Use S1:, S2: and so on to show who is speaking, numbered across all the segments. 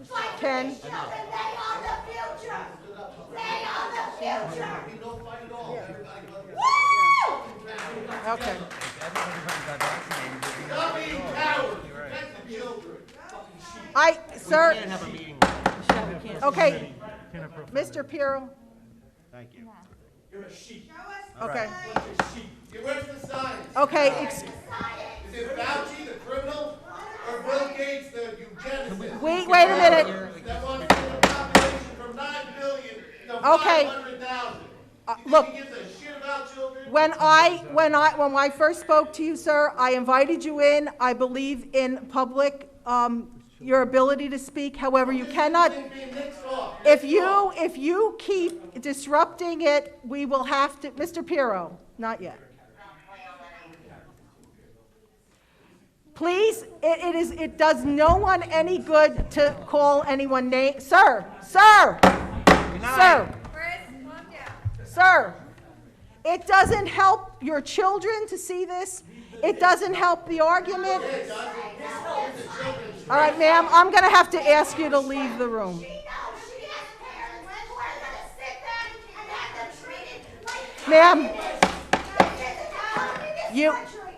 S1: one.
S2: They are the future. They are the future.
S1: Okay. I, sir. Okay. Mr. Pirro,
S3: Thank you.
S1: okay,
S4: It works for science.
S1: okay, ex-
S4: Is it Fauci, the criminal, or Bill Gates, the eugenicist,
S1: wait, wait a minute.
S4: that wants to get the population from 9 billion to
S1: Okay.
S4: 500,000?
S1: Uh,
S4: You
S1: look.
S4: think he gives a shit about children?
S1: When I, when I, when I first spoke to you, sir, I invited you in. I believe in public, um, your ability to speak. However, you cannot,
S4: Thing being mixed off.
S1: if you, if you keep disrupting it, we will have to, Mr. Pirro, not yet. Please, it, it is, it does no one any good to call anyone name, sir, sir, sir.
S2: Chris, calm down.
S1: Sir, it doesn't help your children to see this. It doesn't help the argument. All right, ma'am, I'm going to have to ask you to leave the room.
S2: She knows she has parents. We're gonna sit down and have them treated like.
S1: Ma'am.
S2: You.
S1: You-
S2: I'll never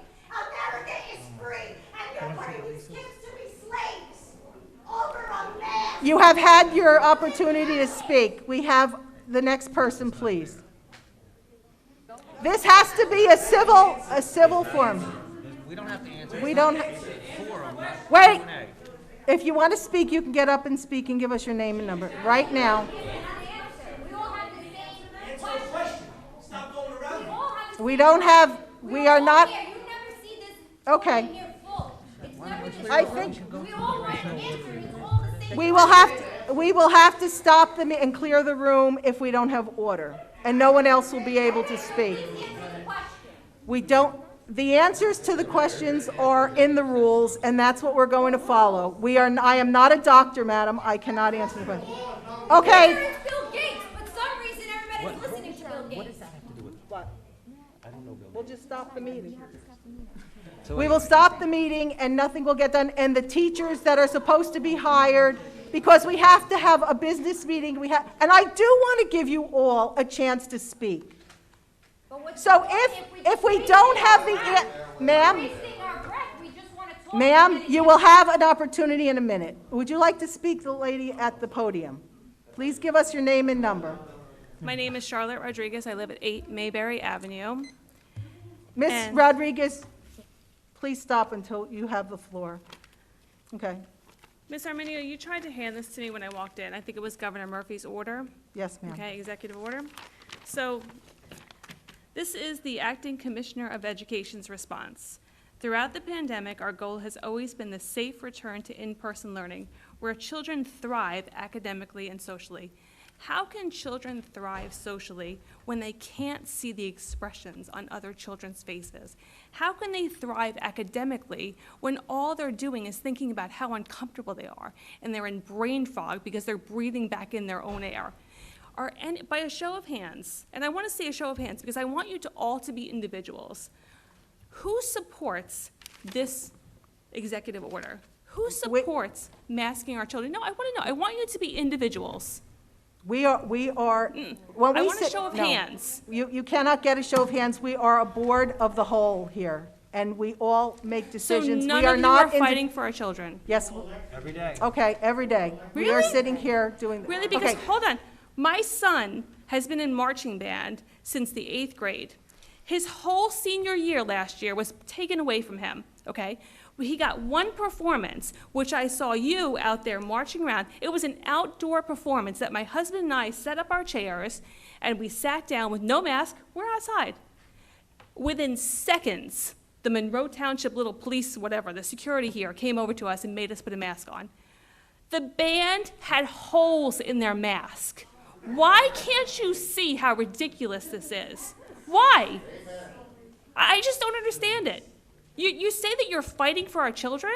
S2: get you free, and you're putting these kids to be slaves over a man.
S1: You have had your opportunity to speak. We have the next person, please. This has to be a civil, a civil form.
S5: We don't have to answer.
S1: We don't, ha- wait. If you want to speak, you can get up and speak and give us your name and number right now.
S6: We all have the same question.
S4: Stop going around.
S6: We all have the same.
S1: We don't have, we are
S6: all
S1: not,
S6: here. You never see this
S1: Okay.
S6: room here full. It's never this
S1: I
S6: full.
S1: think-
S6: We all want an answer. It's all the same.
S1: We will have, to. we will have to stop them and clear the room if we don't have order, and no one else will be able to speak.
S6: Please answer the question.
S1: We don't, the answers to the questions are in the rules, and that's what we're going to follow. We are, I am not a doctor, madam, I cannot answer the question.
S6: Here
S1: Okay,
S6: is Bill Gates. For some reason, everybody's listening to Bill Gates.
S1: we'll just stop the meeting. We will stop the meeting, and nothing will get done, and the teachers that are supposed to be hired, because we have to have a business meeting, we have, and I do want to give you all a chance to speak.
S6: But what's
S1: So
S6: the point
S1: if,
S6: just
S1: if we
S6: wasting
S1: don't
S6: our
S1: have the,
S6: breath?
S1: an- ma'am,
S6: Wasting our breath. We just want to talk.
S1: ma'am,
S6: We're
S1: you
S6: gonna
S1: will have an opportunity in a minute. Would you like to speak to the lady at the podium? Please give us your name and number.
S7: My name is Charlotte Rodriguez. I live at 8 Mayberry Avenue.
S1: Ms.
S7: And-
S1: Rodriguez, please stop until you have the floor. Okay,
S7: Ms. Arminio, you tried to hand this to me when I walked in. I think it was Governor Murphy's order,
S1: yes, ma'am.
S7: okay, executive order. So this is the acting commissioner of education's response. Throughout the pandemic, our goal has always been the safe return to in-person learning, where children thrive academically and socially. How can children thrive socially when they can't see the expressions on other children's faces? How can they thrive academically when all they're doing is thinking about how uncomfortable they are and they're in brain fog because they're breathing back in their own air? Are any, by a show of hands, and I want to say a show of hands because I want you to all to be individuals. Who supports this executive order? Who supports masking our children? No, I want to know. I want you to be individuals.
S1: We are, we are, when
S7: Hmm. I
S1: we
S7: want a
S1: sit.
S7: show of
S1: no.
S7: hands.
S1: You, you cannot get a show of hands. We are a board of the whole here, and we all make
S7: So
S1: decisions.
S7: none
S1: We are
S7: of you are
S1: not. indi-
S7: fighting for our children.
S1: Yes,
S3: Every day.
S1: Okay, every day. We are
S7: Really?
S1: sitting here doing.
S7: Really? Because,
S1: okay.
S7: hold on, my son has been in marching band since the eighth grade. His whole senior year last year was taken away from him, okay? He got one performance, which I saw you out there marching around. It was an outdoor performance that my husband and I set up our chairs and we sat down with no mask. We're outside. Within seconds, the Monroe Township little police, whatever, the security here came over to us and made us put a mask on. The band had holes in their mask. Why can't you see how ridiculous this is? Why? I I just don't understand it. You, you say that you're fighting for our children?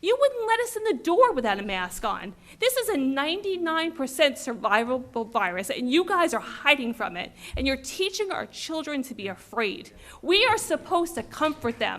S7: You wouldn't let us in the door without a mask on. This is a 99% survivable virus, and you guys are hiding from it, and you're teaching our children to be afraid. We are supposed to comfort them.